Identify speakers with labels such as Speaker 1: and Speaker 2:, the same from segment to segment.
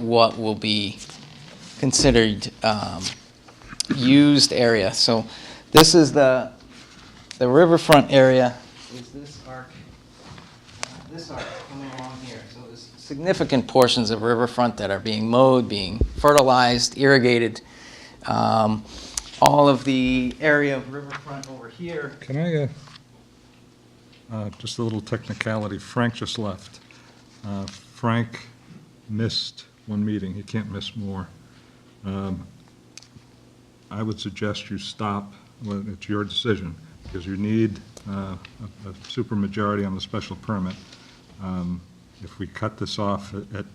Speaker 1: what will be considered um, used area. So this is the, the riverfront area. Is this arc, this arc coming along here. So there's significant portions of riverfront that are being mowed, being fertilized, irrigated. Um, All of the area of riverfront over here
Speaker 2: Can I, uh, uh, just a little technicality, Frank just left. Uh, Frank missed one meeting, he can't miss more. Um, I would suggest you stop, well, it's your decision, because you need uh, a a supermajority on the special permit. Um, If we cut this off at- at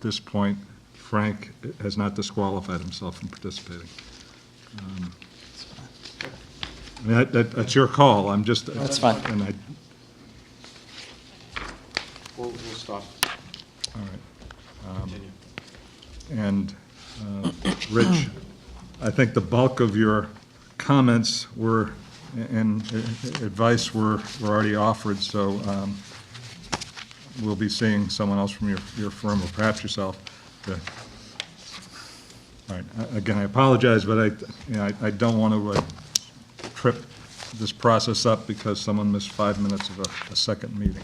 Speaker 2: this point, Frank has not disqualified himself from participating. Um, I mean, that- that- That's your call, I'm just.
Speaker 1: That's fine.
Speaker 2: And I,
Speaker 3: We'll, we'll stop.
Speaker 2: all right. Um,
Speaker 3: Continue.
Speaker 2: And, uh, Rich, I think the bulk of your comments were, and advice were, were already offered, so um, we'll be seeing someone else from your, your firm, or perhaps yourself. to- All right, a- again, I apologize, but I, you know, I- I don't want to uh, trip this process up because someone missed five minutes of a, a second meeting.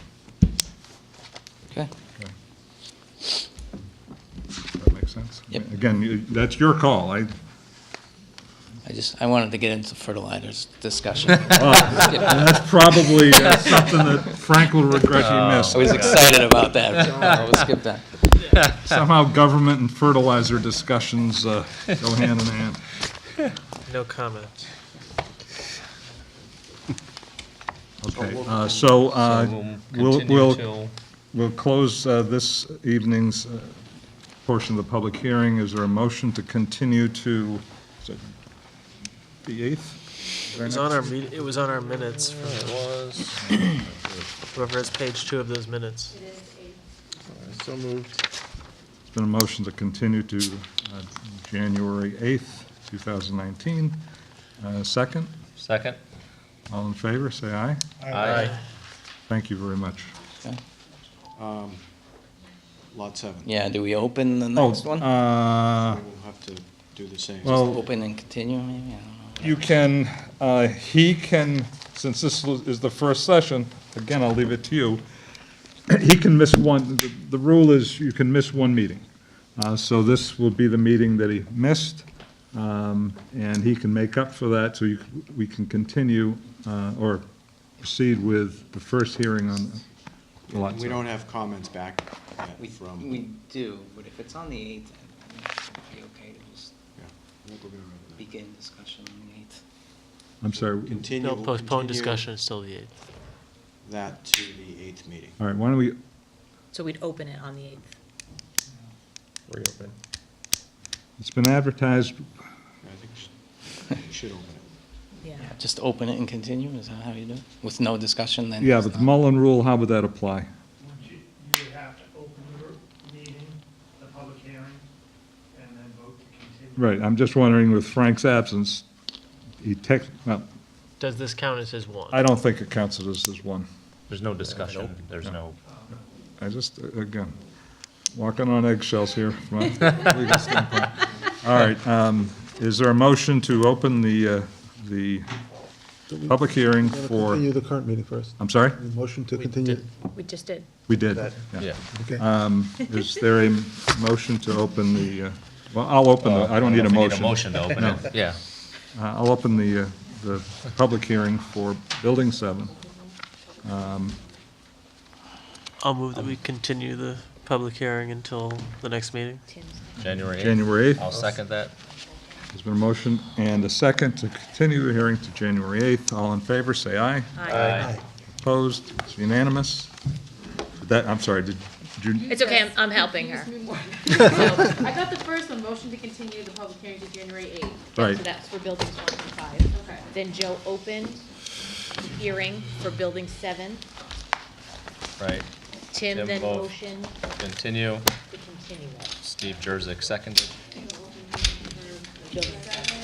Speaker 1: Okay.
Speaker 2: Okay. Does that make sense?
Speaker 1: Yep.
Speaker 2: Again, you- that's your call. I,
Speaker 1: I just, I wanted to get into fertilizers discussion.
Speaker 2: that's probably uh, something that Frank will regret he missed.
Speaker 1: I was excited about that. I'll skip that.
Speaker 2: Somehow government and fertilizer discussions uh, go hand in hand.
Speaker 4: No comment.
Speaker 2: Okay, uh, so uh, we'll, we'll,
Speaker 4: till
Speaker 2: we'll close uh, this evening's uh, portion of the public hearing. Is there a motion to continue to, is it the 8th?
Speaker 4: It was on our, me- it was on our minutes. from the- Whoever has page two of those minutes.
Speaker 3: So moved.
Speaker 2: It's been a motion to continue to uh, January 8th, 2019. Uh, Second,
Speaker 5: Second?
Speaker 2: all in favor, say aye. Thank you very much.
Speaker 3: Lot seven.
Speaker 1: Yeah, do we open the
Speaker 2: Oh,
Speaker 1: next one?
Speaker 2: uh, oh.
Speaker 3: We'll have to do the same.
Speaker 2: Well-
Speaker 1: Open and continue, maybe? I don't know.
Speaker 2: You can, uh, he can, since this was- is the first session, again, I'll leave it to you, he can miss one, the- the rule is you can miss one meeting. Uh, So this will be the meeting that he missed, um, and he can make up for that, so you c- we can continue uh, or proceed with the first hearing on the lot
Speaker 3: We
Speaker 2: size.
Speaker 3: don't have comments back yet from.
Speaker 1: We do, but if it's on the 8th, I think it'd be okay to just
Speaker 3: yeah, I think we're gonna remember that.
Speaker 1: begin discussion on the 8th.
Speaker 2: I'm sorry.
Speaker 3: Continue.
Speaker 4: No,
Speaker 3: we'll
Speaker 4: postpone
Speaker 3: continue
Speaker 4: discussion until the 8th.
Speaker 3: That to the eighth meeting.
Speaker 2: All right, why don't we,
Speaker 6: So we'd open it on the 8th.
Speaker 5: Reopen.
Speaker 2: it's been advertised,
Speaker 3: I think we should- we should open it.
Speaker 6: Yeah.
Speaker 1: Just open it and continue, is that how you do it? With no discussion then?
Speaker 2: yeah,
Speaker 1: it's
Speaker 2: but the
Speaker 1: not-
Speaker 2: Mullen Rule, how would that apply?
Speaker 7: Would you, you would have to open the meeting, the public hearing, and then vote to
Speaker 2: Right,
Speaker 7: continue.
Speaker 2: I'm just wondering with Frank's absence, he tech, well,
Speaker 4: Does this count as his one?
Speaker 2: I don't think it counts as as one.
Speaker 5: There's no discussion, there's no.
Speaker 2: I just, uh, again, walking on eggshells here. from a legal standpoint. All right, um, is there a motion to open the, uh, the public hearing for,
Speaker 8: Continue the current meeting first.
Speaker 2: I'm sorry?
Speaker 8: The Motion to
Speaker 4: We
Speaker 8: continue.
Speaker 4: did-
Speaker 6: We just did.
Speaker 2: We did, yeah.
Speaker 8: Okay.
Speaker 2: Um, Is there a motion to open the, uh, well, I'll open, the- Uh, I don't need a motion.
Speaker 5: to open it, yeah.
Speaker 2: Uh, I'll open the, uh, the public hearing for Building 7.
Speaker 4: I'll move that we continue the public hearing until the next meeting.
Speaker 6: Tim's.
Speaker 5: January 8th.
Speaker 2: January 8th.
Speaker 5: I'll second that.
Speaker 2: There's been a motion and a second to continue the hearing to January 8th. All in favor, say aye. Opposed? It's unanimous. Did That, I'm sorry, did did you,
Speaker 6: It's okay, I'm, I'm helping her.
Speaker 9: Excuse me more. So, I got the first one, motion to continue the public hearing to January eighth.
Speaker 2: Right.
Speaker 9: So that's for buildings one and five. Okay.
Speaker 6: Then Joe opened the hearing for building seven.
Speaker 5: Right.
Speaker 6: Tim
Speaker 5: Tim
Speaker 6: then
Speaker 5: both.
Speaker 6: motioned
Speaker 5: Continue.
Speaker 6: to continue it.
Speaker 5: Steve Jurzik seconded.
Speaker 6: Building seven.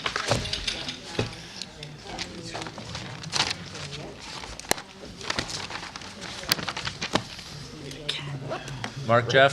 Speaker 5: Mark, Jeff?